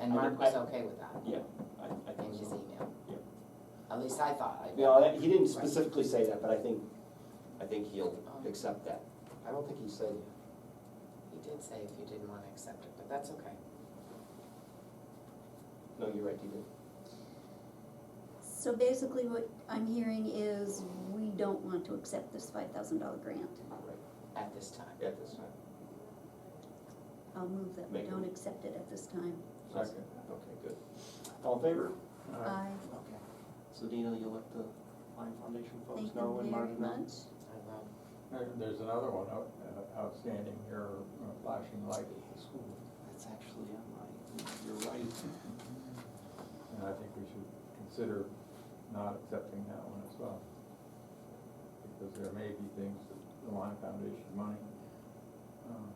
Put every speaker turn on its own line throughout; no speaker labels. And
I
Mark
would-
was okay with that
I, I
in
think
his
so.
email.
Yeah.
At least I thought, I,
You know, that- he didn't
Right.
specifically say that, but I think, I think he'll
Oh.
Um.
accept that. I don't think he said,
he did say if you didn't wanna accept it, but that's okay.
no, you're right, he did.
So basically what I'm hearing is we don't want to accept this five thousand dollar grant.
Right,
At this time.
at this time.
I'll move that we
Make a-
don't accept it at this time.
Second. Okay, good. All in favor?
I
Okay. So Dina, you'll let the Lime Foundation folks
thank
know
them
and Mark
very
know?
much.
I love,
There- There's another one out- uh, outstanding here, uh, flashing light at the school,
That's actually on my, you're right.
and I think we should consider not accepting that one as well. Because there may be things that the Lime Foundation money uh,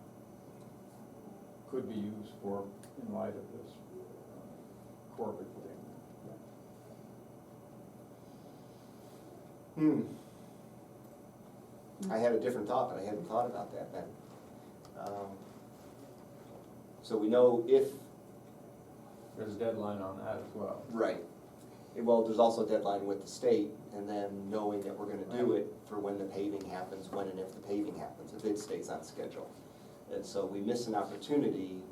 could be used for in light of this uh, Corbett thing.
Hmm. I had a different thought, but I hadn't thought about that then. Um, So we know if,
There's a deadline on that as well.
right, Eh, well, there's also a deadline with the state, and then knowing that we're gonna do it for when the paving happens, when and if the paving happens, if it stays on schedule. And so we miss an opportunity,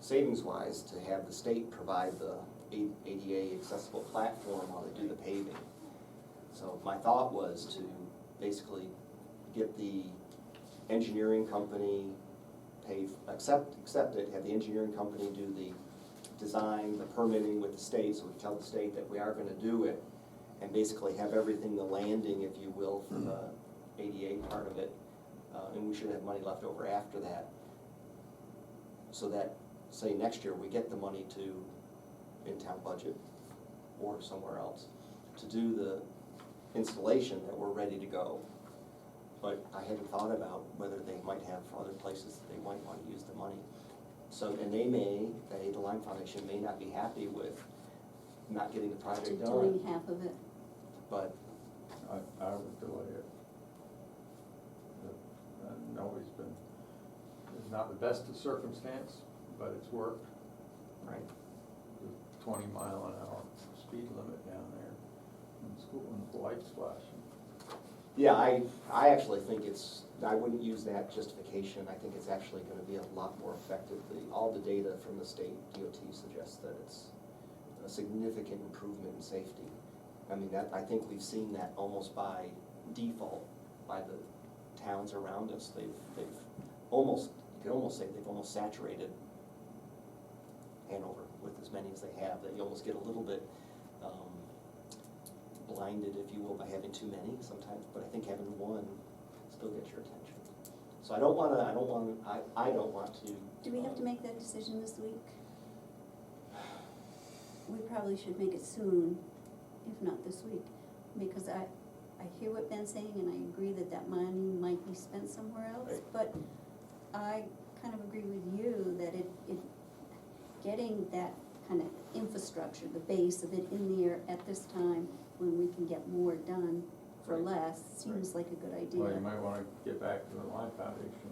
savings-wise, to have the state provide the A- ADA accessible platform while they do the paving. So my thought was to basically get the engineering company pay, accept, accept it, have the engineering company do the design, the permitting with the state, so we tell the state that we are gonna do it, and basically have everything, the landing, if you will, for the ADA part of it, uh, and we should have money left over after that. So that, say, next year, we get the money to, in town budget, or somewhere else, to do the installation that we're ready to go. But I hadn't thought about whether they might have other places that they might wanna use the money. So, and they may, they, the Lime Foundation may not be happy with not getting the project
Doing
done,
half of it.
but
I, I would delay it. The- uh, Nobody's been, it's not the best of circumstance, but it's worked.
Right.
The Twenty mile an hour speed limit down there in school, and the lights flashing.
Yeah, I, I actually think it's, I wouldn't use that justification, I think it's actually gonna be a lot more effective. The- All the data from the state DOT suggests that it's a significant improvement in safety. I mean, that, I think we've seen that almost by default by the towns around us, they've, they've almost, you could almost say they've almost saturated Hanover with as many as they have, that you almost get a little bit, um, blinded, if you will, by having too many sometimes, but I think having one still gets your attention. So I don't wanna, I don't wanna, I, I don't want to. um,
Do we have to make that decision this week? We probably should make it soon, if not this week, because I, I hear what Ben's saying and I agree that that money might be spent somewhere else, but I kind of agree with you that it, it, getting that kind of infrastructure, the base of it in the air at this time, when we can get more done for
Right.
less, seems like a good
Well, you
idea.
might wanna get back to the Lime Foundation.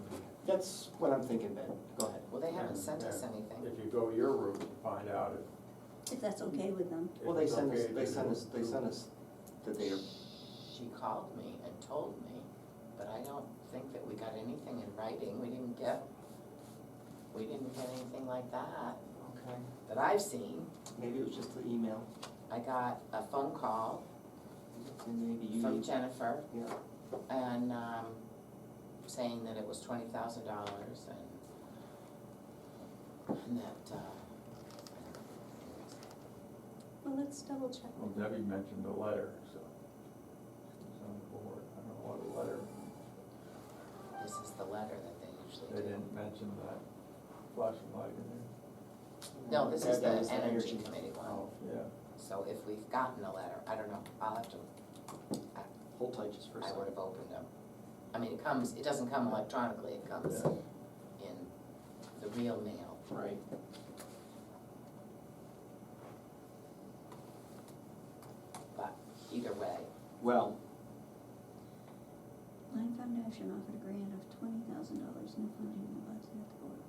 That's what I'm thinking, Ben, go ahead.
Well, they haven't
and-
sent us
and
anything.
If you go your route, you find out if.
If that's okay with them,
if
Well, they
it's
sent us,
okay
they
to
sent us,
do-
they sent us that they are,
She called me and told me, but I don't think that we got anything in writing, we didn't get, we didn't get anything like that,
okay,
that I've seen.
maybe it was just the email,
I got a phone call
and maybe you
from
need,
Jennifer
yeah,
and, um, saying that it was twenty thousand dollars and, and that, uh,
well, let's double check.
Well, Debbie mentioned a letter, so. It's on the board, I don't know what a letter means.
this is the letter that they usually do.
They didn't mention that flashing light in there.
No, this is
That- that
the
was
energy committee one,
Oh, yeah.
so if we've gotten a letter, I don't know, I'll have to,
Hold tight just for a
I would
second.
have opened them. I mean, it comes, it doesn't come electronically, it comes
Yeah.
in the real mail.
Right.
Either way,
Well,
Lime Foundation offered a grant of twenty thousing dollars, no funding will budget at the board.